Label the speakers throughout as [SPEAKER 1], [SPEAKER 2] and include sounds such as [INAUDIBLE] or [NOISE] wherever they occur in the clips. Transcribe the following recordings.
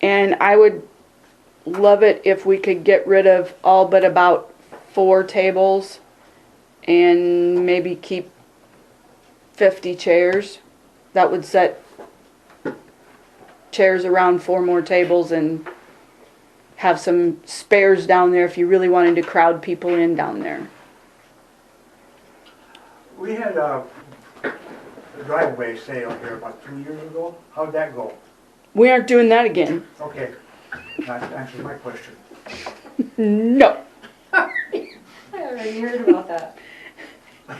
[SPEAKER 1] And I would love it if we could get rid of all but about four tables and maybe keep fifty chairs. That would set chairs around four more tables and have some spares down there if you really wanted to crowd people in down there.
[SPEAKER 2] We had a driveway sale here about two years ago. How'd that go?
[SPEAKER 1] We aren't doing that again.
[SPEAKER 2] Okay, that answers my question.
[SPEAKER 1] No.
[SPEAKER 3] I already heard about that.
[SPEAKER 2] Well,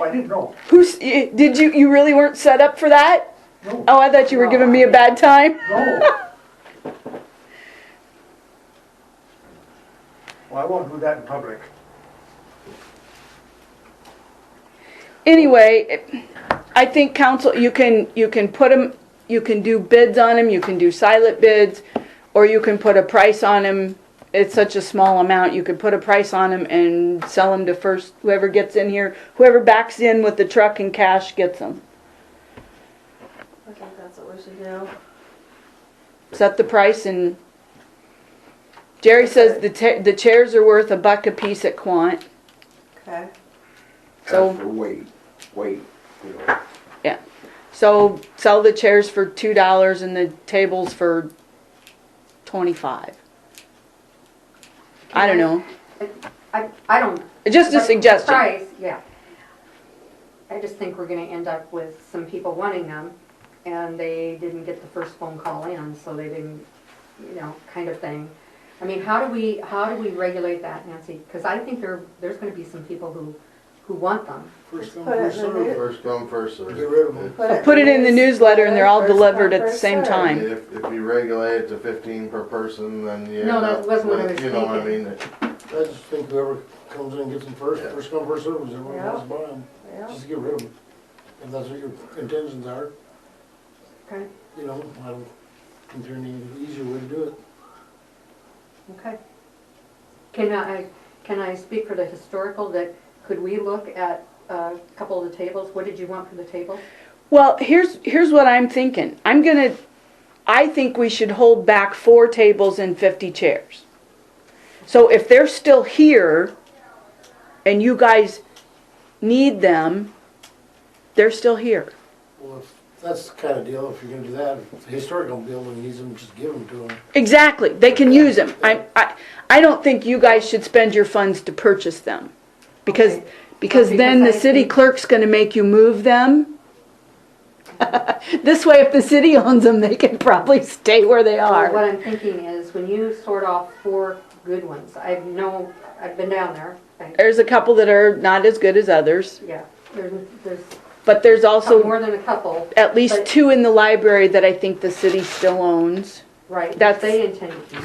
[SPEAKER 2] Oh, I didn't know.
[SPEAKER 1] Who's, y- did you, you really weren't set up for that?
[SPEAKER 2] No,
[SPEAKER 1] Oh, I thought you were giving me a bad time.
[SPEAKER 2] no. Well, I won't do that in public.
[SPEAKER 1] Anyway, it- I think council, you can, you can put them, you can do bids on them, you can do silent bids, or you can put a price on them. It's such a small amount, you could put a price on them and sell them to first, whoever gets in here, whoever backs in with the truck and cash gets them.
[SPEAKER 3] I think that's what we should do.
[SPEAKER 1] set the price and Jerry says the ta- the chairs are worth a buck a piece at Quant.
[SPEAKER 3] Okay.
[SPEAKER 1] So-
[SPEAKER 4] That's the weight, weight, you know.
[SPEAKER 1] So sell the chairs for two dollars and the tables for twenty-five. I don't know,
[SPEAKER 5] I, I don't.
[SPEAKER 1] just a
[SPEAKER 5] but
[SPEAKER 1] suggestion.
[SPEAKER 5] Price, yeah. I just think we're gonna end up with some people wanting them, and they didn't get the first phone call in, so they didn't, you know, kind of thing. I mean, how do we, how do we regulate that, Nancy? Because I think there, there's gonna be some people who, who want them.
[SPEAKER 6] First come,
[SPEAKER 3] Put it
[SPEAKER 6] first
[SPEAKER 3] in the
[SPEAKER 6] served.
[SPEAKER 3] news.
[SPEAKER 7] First come, first served.
[SPEAKER 6] Get rid of 'em.
[SPEAKER 1] Put it in the newsletter and they're all
[SPEAKER 3] First come,
[SPEAKER 1] delivered at the
[SPEAKER 3] first
[SPEAKER 1] same
[SPEAKER 3] served.
[SPEAKER 7] I
[SPEAKER 1] time.
[SPEAKER 7] mean, If, if you regulate it to fifteen per person, then you.
[SPEAKER 5] No,
[SPEAKER 7] end
[SPEAKER 5] that
[SPEAKER 7] up
[SPEAKER 5] wasn't what I
[SPEAKER 7] with-
[SPEAKER 5] was
[SPEAKER 7] You know what I
[SPEAKER 5] thinking.
[SPEAKER 7] mean?
[SPEAKER 6] I just think whoever comes in and gets them first,
[SPEAKER 7] Yeah.
[SPEAKER 6] first come, first served, is everyone
[SPEAKER 3] Yeah.
[SPEAKER 6] wants to buy them.
[SPEAKER 3] Yeah.
[SPEAKER 6] Just get rid of them. If that's what your intentions are,
[SPEAKER 5] Okay,
[SPEAKER 6] you know, I don't think there's any easier way to do it.
[SPEAKER 5] okay. Can I, can I speak for the historical that, could we look at uh, a couple of the tables? What did you want for the table?
[SPEAKER 1] Well, here's, here's what I'm thinking. I'm gonna, I think we should hold back four tables and fifty chairs. So if they're still here and you guys need them, they're still here.
[SPEAKER 6] Well, if that's the kind of deal, if you're gonna do that, if the historical building needs them, just give them to them.
[SPEAKER 1] Exactly, they can use them. I, I, I don't think you guys should spend your funds to purchase them. Because,
[SPEAKER 5] Okay.
[SPEAKER 1] because then the
[SPEAKER 5] Because I
[SPEAKER 1] city
[SPEAKER 5] think-
[SPEAKER 1] clerk's gonna make you move them. [LAUGHS] This way, if the city owns them, they can probably stay where they
[SPEAKER 5] Well,
[SPEAKER 1] are.
[SPEAKER 5] What I'm thinking is, when you sort off four good ones, I know, I've been down there, thank-
[SPEAKER 1] There's a couple that are not as good as others,
[SPEAKER 5] yeah, there's, there's
[SPEAKER 1] but there's
[SPEAKER 5] some
[SPEAKER 1] also
[SPEAKER 5] more than a couple,
[SPEAKER 1] at least
[SPEAKER 5] but-
[SPEAKER 1] two in the library that I think the city still owns
[SPEAKER 5] right,
[SPEAKER 1] That's-
[SPEAKER 5] that they intend to keep.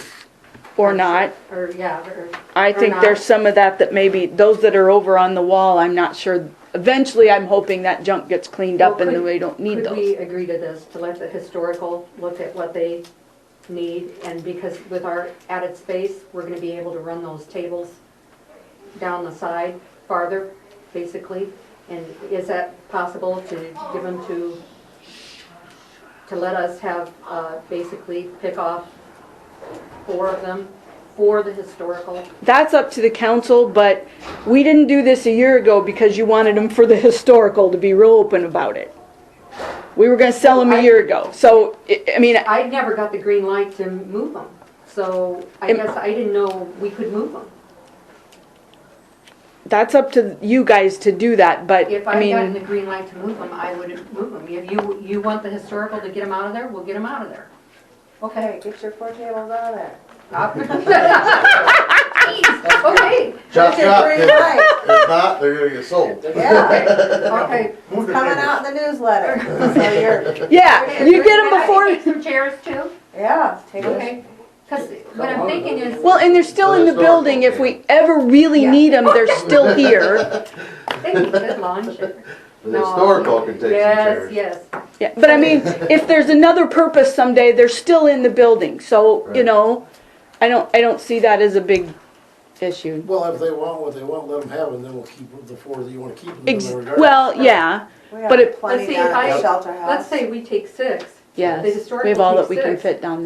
[SPEAKER 1] or not.
[SPEAKER 5] Or, yeah, or,
[SPEAKER 1] I
[SPEAKER 5] Or
[SPEAKER 1] think
[SPEAKER 5] not.
[SPEAKER 1] there's some of that that maybe, those that are over on the wall, I'm not sure. Eventually, I'm hoping that junk gets cleaned up
[SPEAKER 5] Well,
[SPEAKER 1] and
[SPEAKER 5] could-
[SPEAKER 1] we don't need
[SPEAKER 5] could
[SPEAKER 1] those.
[SPEAKER 5] we agree to this, to let the historical look at what they need? And because with our added space, we're gonna be able to run those tables down the side farther, basically. And is that possible to give them to, to let us have, uh, basically pick off four of them for the historical?
[SPEAKER 1] That's up to the council, but we didn't do this a year ago because you wanted them for the [LAUGHS] historical to be real open about it. We were gonna sell them a year ago, so, I- I mean,
[SPEAKER 5] I never got the green light to move them, so I
[SPEAKER 1] Am-
[SPEAKER 5] guess I didn't know we could move them.
[SPEAKER 1] that's up to you guys to do that, but,
[SPEAKER 5] If
[SPEAKER 1] I
[SPEAKER 5] I
[SPEAKER 1] mean.
[SPEAKER 5] got the green light to move them, I would move them. If you, you want the historical to get them out of there, we'll get them out
[SPEAKER 7] [LAUGHS]
[SPEAKER 5] of there. Okay.
[SPEAKER 3] Hey, get your four tables out of there.
[SPEAKER 5] Up. Jeez, Okay,
[SPEAKER 7] Chop,
[SPEAKER 3] Get
[SPEAKER 7] chop.
[SPEAKER 3] your green
[SPEAKER 7] If
[SPEAKER 3] light.
[SPEAKER 7] if not, they're gonna get sold.
[SPEAKER 3] [LAUGHS] Yeah,
[SPEAKER 5] okay.
[SPEAKER 2] Move the
[SPEAKER 3] coming
[SPEAKER 2] tables.
[SPEAKER 3] out in the [LAUGHS] newsletter. So you're,
[SPEAKER 1] Yeah, you get them before.
[SPEAKER 5] Some chairs too,
[SPEAKER 3] yeah, take a
[SPEAKER 5] okay? Because what I'm thinking is,
[SPEAKER 1] Well, and they're still in the building. If we ever really need them,
[SPEAKER 5] [LAUGHS]
[SPEAKER 1] they're still here.
[SPEAKER 5] they need
[SPEAKER 7] [LAUGHS]
[SPEAKER 5] good lawn chairs.
[SPEAKER 7] The
[SPEAKER 5] No.
[SPEAKER 7] historical can take some
[SPEAKER 5] Yes,
[SPEAKER 7] chairs.
[SPEAKER 5] yes.
[SPEAKER 1] Yeah, but I mean, if there's another purpose someday, they're still in the building. So you
[SPEAKER 7] Right.
[SPEAKER 1] know, I don't, I don't see that as a big issue.
[SPEAKER 6] Well, if they want what they want, let them have it, and then we'll keep the four that you wanna keep. and then
[SPEAKER 1] Ex-
[SPEAKER 6] regardless.
[SPEAKER 1] well, yeah,
[SPEAKER 3] We
[SPEAKER 1] But
[SPEAKER 3] have
[SPEAKER 1] it-
[SPEAKER 3] plenty
[SPEAKER 5] Let's see,
[SPEAKER 3] down at the
[SPEAKER 5] I-
[SPEAKER 3] shelter house.
[SPEAKER 5] Let's say we take six.
[SPEAKER 1] yes.
[SPEAKER 5] The
[SPEAKER 1] We have all
[SPEAKER 5] historical
[SPEAKER 1] that we can
[SPEAKER 5] keeps six.
[SPEAKER 1] fit down there.